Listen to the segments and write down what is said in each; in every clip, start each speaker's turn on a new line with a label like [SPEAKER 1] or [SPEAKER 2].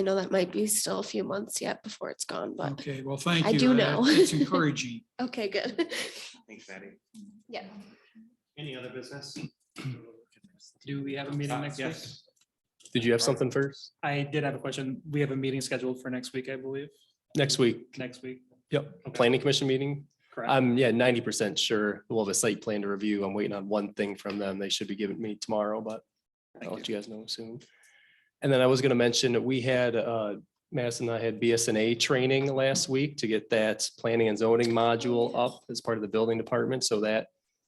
[SPEAKER 1] I know that might be still a few months yet before it's gone, but
[SPEAKER 2] Okay, well, thank you.
[SPEAKER 1] I do
[SPEAKER 2] That-
[SPEAKER 1] know.
[SPEAKER 2] It's encouraging.
[SPEAKER 1] okay, good.
[SPEAKER 3] Thanks, Maddie.
[SPEAKER 1] Yeah.
[SPEAKER 3] Any other business? Uh,
[SPEAKER 4] Do we have a meeting next week?
[SPEAKER 3] Yes.
[SPEAKER 5] Did you have something first?
[SPEAKER 4] Uh, I did have a question. We have a meeting scheduled for next week, I believe,
[SPEAKER 5] Next week?
[SPEAKER 4] next week.
[SPEAKER 5] Yep. Planning commission meeting?
[SPEAKER 4] Correct.
[SPEAKER 5] I'm, yeah, ninety percent sure we'll have a site plan to review. I'm waiting on one thing from them. They should be giving me tomorrow, but I'll let you guys know soon. And then I was gonna mention that we had, uh, Madison and I had BSNA training last week to get that planning and zoning module up as part of the building department, so that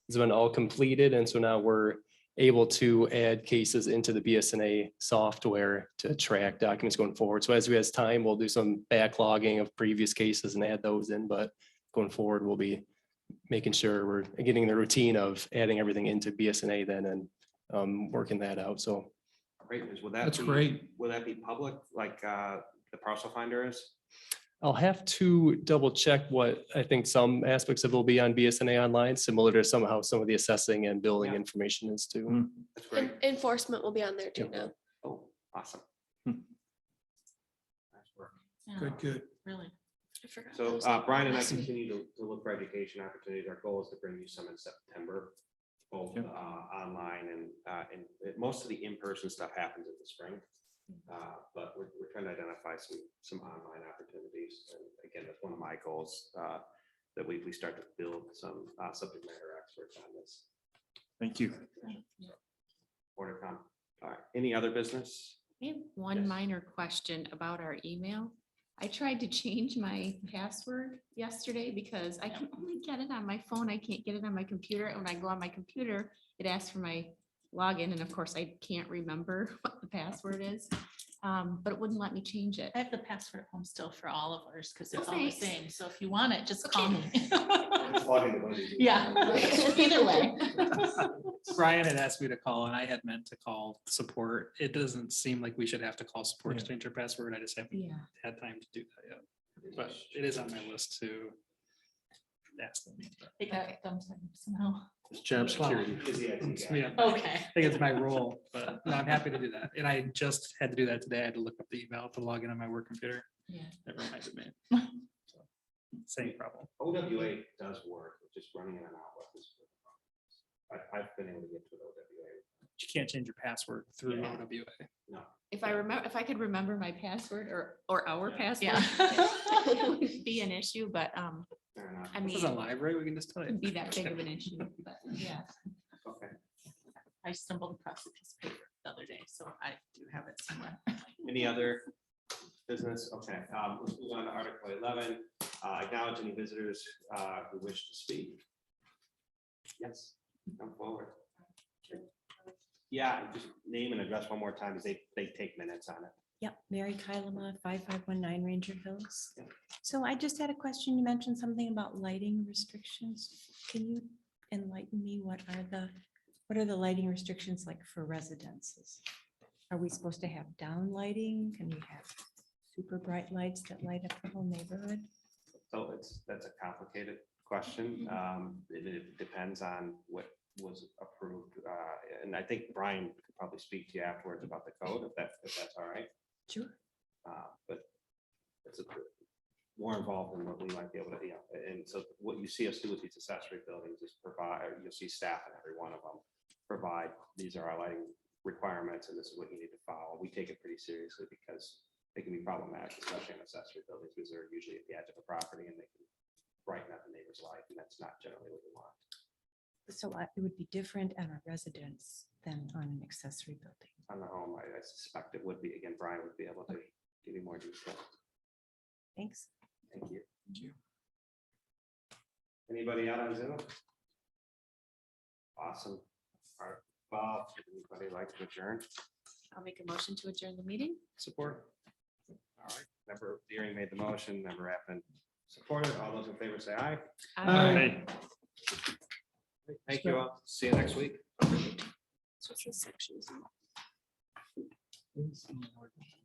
[SPEAKER 5] has been all completed, and so now we're able to add cases into the BSNA software to track documents going forward. So as we has time, we'll do some backlogging of previous cases and add those in, but going forward, we'll be making sure we're getting the routine of adding everything into BSNA then and um, working that out. So
[SPEAKER 3] Great, Liz. will that?
[SPEAKER 2] That's
[SPEAKER 3] be-
[SPEAKER 2] great.
[SPEAKER 3] Will that be public, like uh, the parcel finder is?
[SPEAKER 5] I'll have to double check what I think some aspects of it will be on BSNA online, similar to somehow some of the assessing and billing
[SPEAKER 4] Yeah.
[SPEAKER 5] information is
[SPEAKER 4] Mm.
[SPEAKER 5] too.
[SPEAKER 3] That's
[SPEAKER 1] En-
[SPEAKER 3] great.
[SPEAKER 1] Enforcement will be on there too
[SPEAKER 5] Yeah.
[SPEAKER 1] now.
[SPEAKER 3] Oh, awesome.
[SPEAKER 4] Hmm.
[SPEAKER 3] Nice work.
[SPEAKER 2] Good, good.
[SPEAKER 6] Really?
[SPEAKER 1] I forgot that
[SPEAKER 3] So
[SPEAKER 1] was
[SPEAKER 3] uh,
[SPEAKER 1] on
[SPEAKER 3] Brian and I
[SPEAKER 1] last week.
[SPEAKER 3] continue to to look for education opportunities. Our goal is to bring you some in September, both
[SPEAKER 4] Yep.
[SPEAKER 3] uh, online and, uh, and it- most of the in-person stuff happens in the spring.
[SPEAKER 4] Hmm.
[SPEAKER 3] Uh, But we're, we're trying to identify some, some online opportunities. And again, that's one of my goals, uh, that we, we start to build some uh, subject matter experts on this.
[SPEAKER 4] Thank you.
[SPEAKER 3] More to come. All right, any other business?
[SPEAKER 6] I have
[SPEAKER 3] Yes.
[SPEAKER 6] one minor question about our email. I tried to change my password yesterday because I can only get it on my phone. I can't get it on my computer. And when I go on my computer, it asks for my login. And of course, I can't remember what the password is. Um, but it wouldn't let me change it.
[SPEAKER 7] I have the password at home still for all of ours because it's
[SPEAKER 6] Oh,
[SPEAKER 7] all the
[SPEAKER 6] thanks.
[SPEAKER 7] same. So if you want it, just call me.
[SPEAKER 6] Okay.
[SPEAKER 7] Yeah, either way.
[SPEAKER 4] Brian had asked me to call and I had meant to call support. It doesn't seem like we should have to call support to change your password. I just haven't
[SPEAKER 6] Yeah.
[SPEAKER 4] had time to do that yet. But it is on my list to ask them.
[SPEAKER 7] They got it done somehow.
[SPEAKER 5] Job
[SPEAKER 4] security. Yeah,
[SPEAKER 7] Okay.
[SPEAKER 4] I think it's my role, but no, I'm happy to do that. And I just had to do that today. I had to look up the email to log in on my work computer.
[SPEAKER 7] Yeah.
[SPEAKER 4] That reminded me. So, Same problem.
[SPEAKER 3] OWA does work, it's just running it on Outlook. is where the problem is. I, I've been able to get to an OWA.
[SPEAKER 4] You can't change your password through
[SPEAKER 3] Yeah.
[SPEAKER 4] OWA.
[SPEAKER 6] If I remember, if I could remember my password or, or our password.
[SPEAKER 7] Yeah.
[SPEAKER 6] It wouldn't Be an issue, but, um,
[SPEAKER 3] Fair enough.
[SPEAKER 6] I
[SPEAKER 4] This
[SPEAKER 6] mean,
[SPEAKER 4] is a library. We can just tell
[SPEAKER 6] wouldn't
[SPEAKER 4] you.
[SPEAKER 6] be that big of an issue, but yeah.
[SPEAKER 3] Okay.
[SPEAKER 7] I stumbled across a piece of paper the other day, so I do have it somewhere.
[SPEAKER 3] Any other business? Okay, um, let's move on to Article eleven, uh, acknowledge any visitors, uh, who wish to speak. Yes, come forward. Yeah, just name and address one more time, because they, they take minutes on it.
[SPEAKER 8] Yep, Mary Kylama, five five one nine Ranger Hills.
[SPEAKER 3] Yep.
[SPEAKER 8] So I just had a question. You mentioned something about lighting restrictions. Can you enlighten me? What are the, what are the lighting restrictions like for residences? Are we supposed to have down lighting? Can we have super bright lights that light up the whole neighborhood?
[SPEAKER 3] So it's, that's a complicated question. Um, it, it depends on what was approved. Uh, and I think Brian could probably speak to you afterwards about the code, if that, if that's all right.
[SPEAKER 8] Sure.
[SPEAKER 3] Uh, but it's a more involved than what we might be able to, you know, and so what you see us do with these accessory buildings is provide, you'll see staff in every one of them. Provide, these are our lighting requirements and this is what you need to follow. We take it pretty seriously because it can be problematic, especially in accessory buildings, because they're usually at the edge of a property and they can brighten up the neighbor's life, and that's not generally what you want.
[SPEAKER 8] So I- it would be different at a residence than on an accessory building.
[SPEAKER 3] On the home, I I suspect it would be, again, Brian would be able to give you more detail.
[SPEAKER 8] Thanks.
[SPEAKER 3] Thank you. Anybody out on Zoom? Awesome. All right, Bob, anybody like to adjourn?
[SPEAKER 6] I'll make a motion to adjourn the meeting.
[SPEAKER 3] Support. All right, member Deering made the motion, member Rappin supported. All those in favor say aye.
[SPEAKER 6] Um,
[SPEAKER 4] Hey.
[SPEAKER 3] Thank you all. See you next week.
[SPEAKER 1] Social sections.